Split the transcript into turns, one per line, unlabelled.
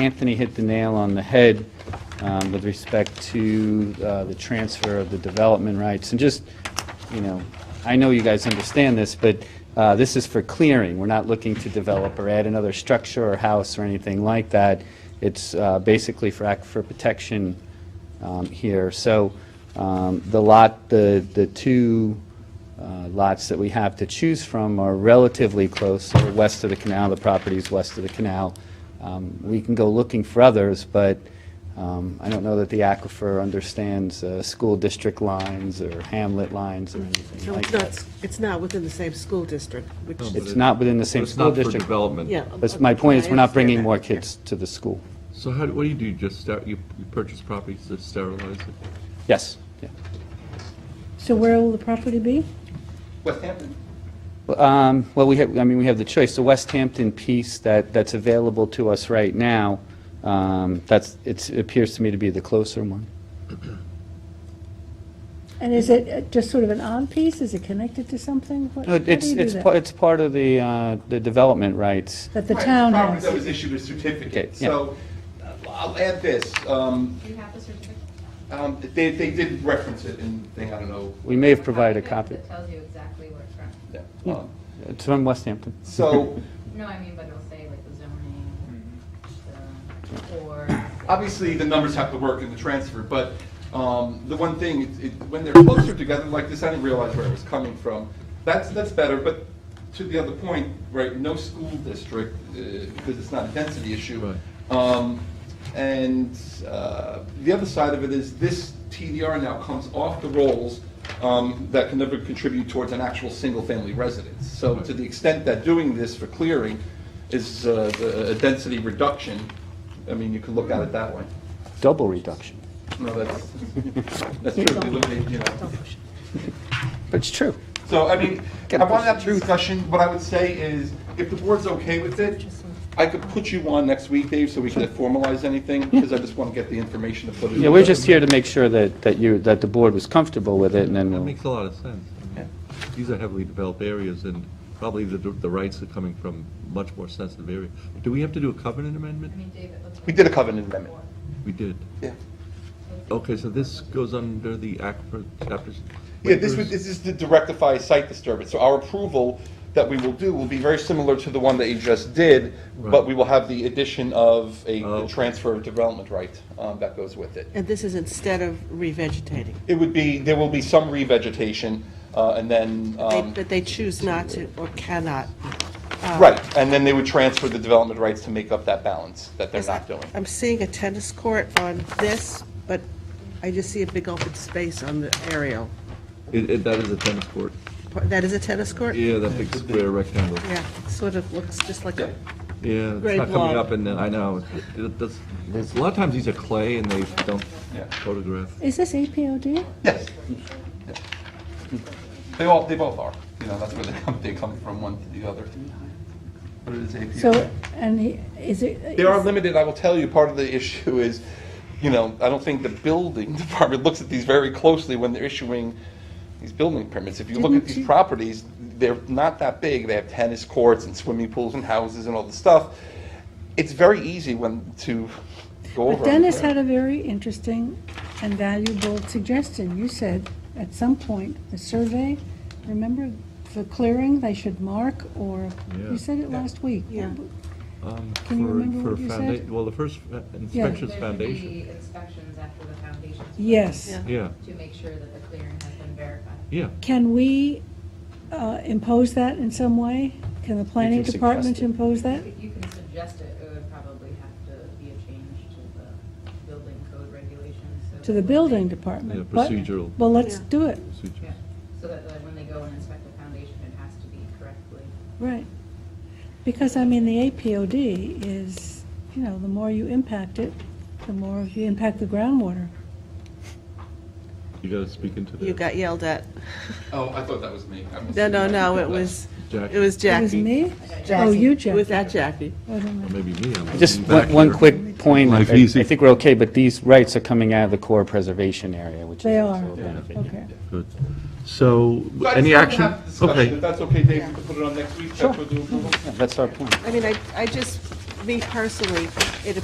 Anthony hit the nail on the head um, with respect to uh, the transfer of the development rights. And just, you know, I know you guys understand this, but uh, this is for clearing. We're not looking to develop or add another structure or house or anything like that. It's uh, basically for aquifer protection um, here. So um, the lot, the, the two uh, lots that we have to choose from are relatively close, so west of the canal, the properties west of the canal. Um, We can go looking for others, but um, I don't know that the aquifer understands uh, school district lines or hamlet lines or anything
So
like
it's
that.
not, it's not within the same school district, which
No, but
It's
is,
it-
not within the same
It's
school
not for
district.
development.
yeah.
But my point is, we're not bringing more
kids.
kids to the school.
So how, do- what do you do, just start, you you purchase properties to sterilize it?
Yes, yeah.
So where will the property be?
West Hampton.
Um, Well, we have, I mean, we have the choice, the West Hampton piece that, that's available to us right now, um, that's, it's- it appears to me to be the closer one.
And is it uh, just sort of an on piece? Is it connected to something? What-
No,
how do
It's,
you do
it's,
that?
pa- it's part of the, uh, the development rights.
That the
Right,
town
Property that
has?
was issued a certificate.
Yeah.
So uh, I'll add this, um,
Do you have the certificate?
um, they, they did reference it in the thing, I don't know.
We may have provided a copy.
That tells you exactly where it's from.
Yeah.
Yeah.
Um,
It's from West Hampton.
So,
No, I mean, but it'll say like the zoning, the, or.
obviously, the numbers have to work in the transfer, but um, the one thing, it- it- when they're closer together like this, I didn't realize where it was coming from. That's, that's better, but to the other point, right, no school district, uh, because it's not a density issue.
Right.
Um, And uh, the other side of it is this TDR now comes off the rolls um, that can never contribute towards an actual single-family residence. So to the extent that doing this for clearing is uh, a a density reduction, I mean, you could look at it that way.
Double reduction.
No, that's, that's true, we eliminate, you know.
But it's true.
So, I mean,
Gotta
I want
push
to have the discussion, what I would say is, if the board's okay with it, I could put you on next week, Dave, so we can formalize anything, because I just want to get the information to put it.
Yeah, we're just here to make sure that, that you, that the board was comfortable with it, and then
That
we'll,
makes a lot of sense. I mean,
Yeah.
These are heavily developed areas, and probably the, the rights are coming from much more sensitive area. Do we have to do a covenant
I
amendment?
mean, David, let's.
We did a covenant amendment.
We did.
Yeah,
Okay, so this goes under the aquifer chapters?
Yeah, this was,
waivers?
this is to to rectify site disturbance, so our approval that we will do will be very similar to the one that you just did, but
Right.
we will have the addition of a
Oh.
a transfer of development right um, that goes with it.
And this is instead of revegetating.
It would be, there will be some revegetation, uh, and then,
They-
um,
But they choose not to or cannot.
right, and then they uh, would transfer the development rights to make up that balance that they're not doing.
I'm seeing a tennis court on this, but I just see a big open space on the aerial.
It, it, that is a tennis court.
That is a tennis court?
Yeah, that big square rectangle.
Yeah, it sort of looks just like a,
Yeah, it's
Great
not coming
blob.
up, and then, I know, it- it- that's, it's- a lot of times these are clay and they don't
Yeah.
photograph.
Is this APOD?
Yes. Yeah. They all, they both are, you know, that's where they come, they come from one to the other. But it is API.
So, and he- is it?
They are
is-
limited, I will tell you, part of the issue is, you know, I don't think the building department looks at these very closely when they're issuing these building permits. If you look at
Didn't
these
you-
properties, they're not that big, they have tennis courts and swimming pools and houses and all the stuff. It's very easy when, to go over.
But Dennis had a very interesting and valuable suggestion. You said at some point, the survey, remember, for clearing, they should mark or,
Yeah.
you said it last week.
Yeah.
Um,
Can you
for-
remember
for
what you
founda-
said?
Well, the first uh, inspection's foundation.
Inspections after the foundation.
Yes.
Yeah.
Yeah,
To make sure that the clearing has been verified.
yeah.
Can we uh, impose that in some way? Can the planning
suggest
department
it.
impose that?
If you can suggest it, it would probably have to be a change to the building code regulations. so
To the
that when
building
they-
Yeah,
department? but-
procedural.
Well, let's
Yeah.
do it,
procedures.
Yeah, so that like, when they go and inspect the foundation, it has to be correctly.
right. Because, I mean, the APOD is, you know, the more you impact it, the more you impact the groundwater.
You gotta speak into the.
you got yelled at.
Oh, I thought that was me. I must
No,
have
no,
been-
no, it was,
Jackie.
it was
It was
Jackie.
me? Oh, you,
It
Jackie.
was that Jackie.
Oh, never
Or
mind.
maybe me. I'm
just
back
one, one
here.
quick point, I I
Life easy.
think we're okay, but these rights are coming out of the core preservation area, which is
They are,
also a benefit.
okay.
Good. So, any
So I just wanted to
action?
have the discussion. If
Okay,
that's okay, Dave, we can put it on next week, that's what we'll do.
Yeah, That's our point.
I mean, I, I just, me personally, it